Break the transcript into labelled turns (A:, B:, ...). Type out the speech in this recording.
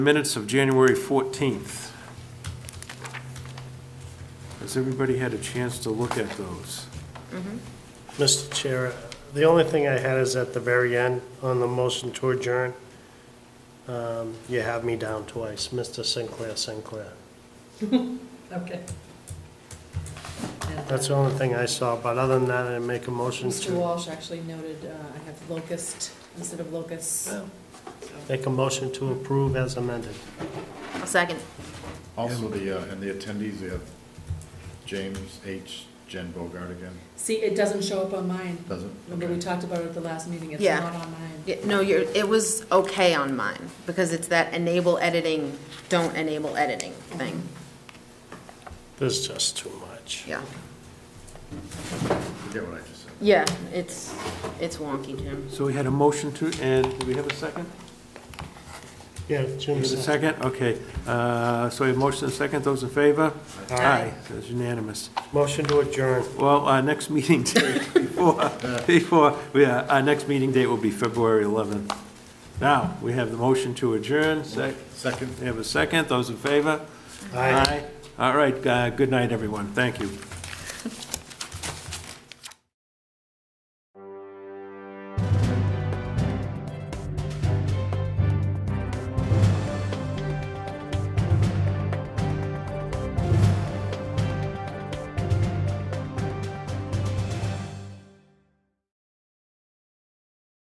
A: Minutes of January 14th. Has everybody had a chance to look at those?
B: Mr. Chair, the only thing I had is at the very end, on the motion to adjourn, um, you have me down twice, Mr. Sinclair Sinclair.
C: Okay. And,
B: That's the
C: uh,
B: only thing I saw, but other than that, I make a motion
C: Mr.
B: to,
C: Walsh actually noted, uh, I have locust instead of locusts.
B: Yeah.
C: So,
B: make a motion to approve as amended.
D: A second.
E: Also, the, uh, and the attendees, we have James H. Jen Bogart again,
C: See, it doesn't show up on mine.
E: doesn't?
C: Remember, we talked about it at the last meeting, it's
D: Yeah.
C: not on mine.
D: Yeah, No, you're, it was okay on mine, because it's that enable editing, don't enable editing thing,
B: There's just too much.
D: yeah.
E: Forget what I just said.
D: Yeah, it's, it's wonky, Jim.
A: So we had a motion to, and do we have a second?
B: Yeah,
A: We
B: Jim
A: have a
B: said,
A: second, okay. Uh, So we have motion and second, those in favor?
B: Aye.
A: That's unanimous.
B: motion to adjourn.
A: Well, our next meeting date, before, before, yeah, our next meeting date will be February 11th. Now, we have the motion to adjourn, sec,
E: Second.
A: we have a second, those in favor?
B: Aye.
A: All right, uh, good night, everyone, thank you.